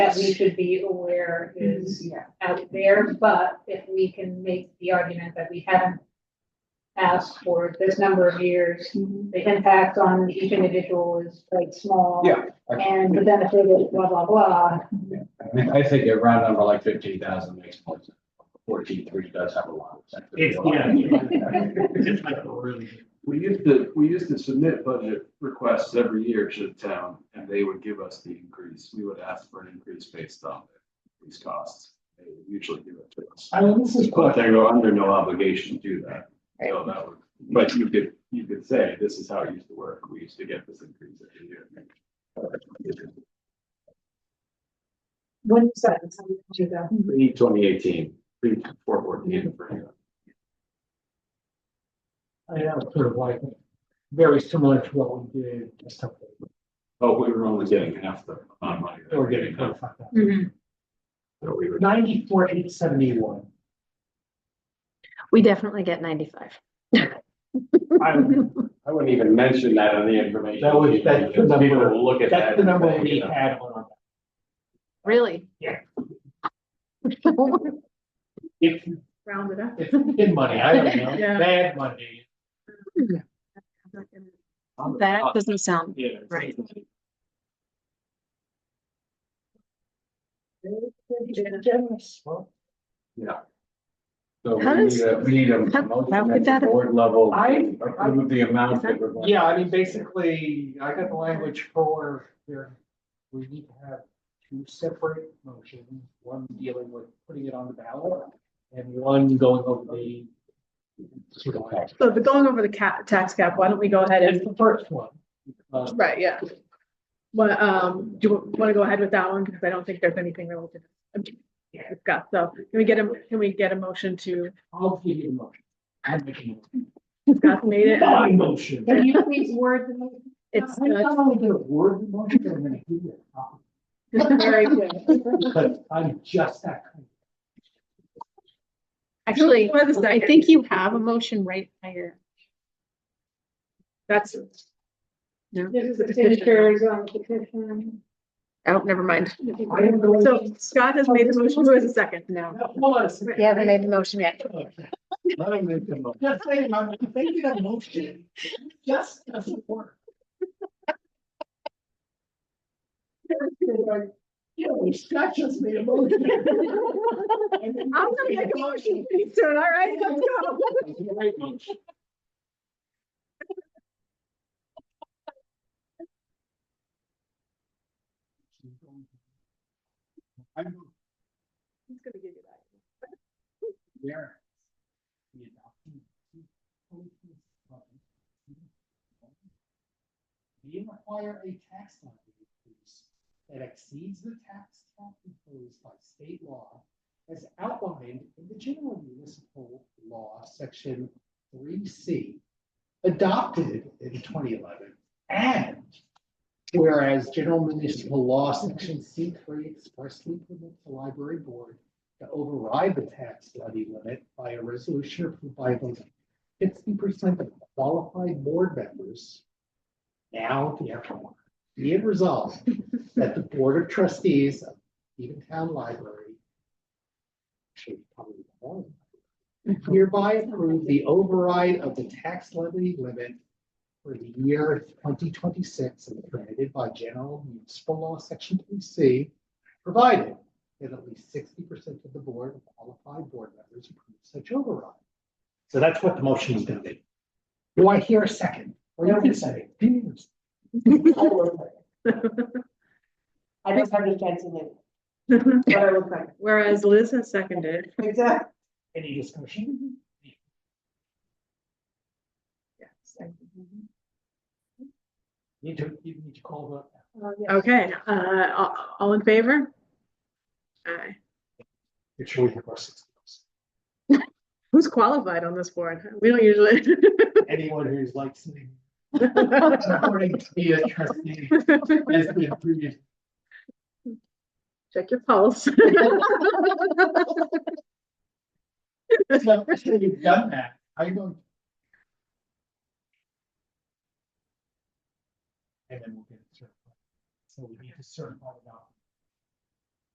that we should be aware is Yeah. out there, but if we can make the argument that we haven't asked for this number of years, the impact on each individual is quite small. Yeah. And the benefit is blah, blah, blah. I mean, I think a round number like fifteen thousand makes more sense. Fourteen, three does have a lot. of sense. It's, yeah. It's like, oh, really? We used to, we used to submit budget requests every year to the town, and they would give us the increase. We would ask for an increase based on these costs. They would usually give it to us. I mean, this is, But they're under no obligation to do that. So that would, but you could, you could say, this is how it used to work. We used to get this increase every year. When is that? It's on the agenda. Pre twenty eighteen, pre four fourteen. I mean, that was sort of like, very similar to what we did, just something, Oh, we were only getting half the amount of money. they were getting twenty-five thousand. So we were- Ninety-four, eight seventy-one. We definitely get ninety-five. I don't- I wouldn't even mention that on the information. That was- that's the number- People will look at that. uh, That's the and number think, we you know, had on our, Really? Yeah. Well, if, Round it up. if good money, I don't know, Yeah. bad money. That doesn't sound, Yeah. Right. Generous. Well, So we How need does- a, we need a how- how motion could at the that- board level, I- to approve the amount that we're going. Yeah, I mean, basically, I got the language for there, we need to have two separate motions, one dealing with putting it on the ballot. And one going over the. sort of like- So the going over the cap, tax cap, why don't we go ahead It's and, the first one. uh, right, yeah. Well, um, do you want to go ahead with that one? Because I don't think there's anything that we'll discuss. So can we get a, can we get a motion to, I'll give you the motion. I'm making Scott made it. it? My motion. Can you please word the motion? It's, I'm it's not only gonna word the motion, but I'm gonna give you a copy, very good. because I'm just that kind. actually, Wait a second. I think you have a motion right here. That's, This is the signatures on the petition. Oh, never mind. I am going. so Scott has made the motion. Who has a second? No. No, Hold on a second. You haven't made the motion yet. Let me make the motion. Just saying, I'm making a motion. Just doesn't work. You know, Scott just made a motion. I'm gonna make a motion pretty soon, all right? Let's go. I'm He's gonna give you that. there. We require a tax levy increase that exceeds the tax cap imposed by state law as outlined in the general municipal law, section three C, adopted in twenty eleven, and whereas general municipal law, section C three expressly permits the library board to override the tax levy limit by a resolution approved by fifty percent of qualified board members. Now, therefore, be it resolved that the Board of Trustees of Eatontown Library should probably be the one, hereby approve the override of the tax levy limit for the year twenty twenty-six as permitted by general municipal law section three C, provided that at least sixty percent of the board of qualified board members approve such override. So that's what the motion is gonna be. Do I hear a second? Or you can say. I don't understand to live. What I look like. Whereas Liz has seconded. Exactly. Any discussion? Need to, you need to call Okay, uh, all, all in favor? Aye. the. Make sure we have our six. Who's qualified on this board? We don't usually. Anyone who's like sitting. According to be a trustee. As we have previous. Check your pulse. It's the first time you've done that. I don't. And then we'll get it certified. So we need to certify it out.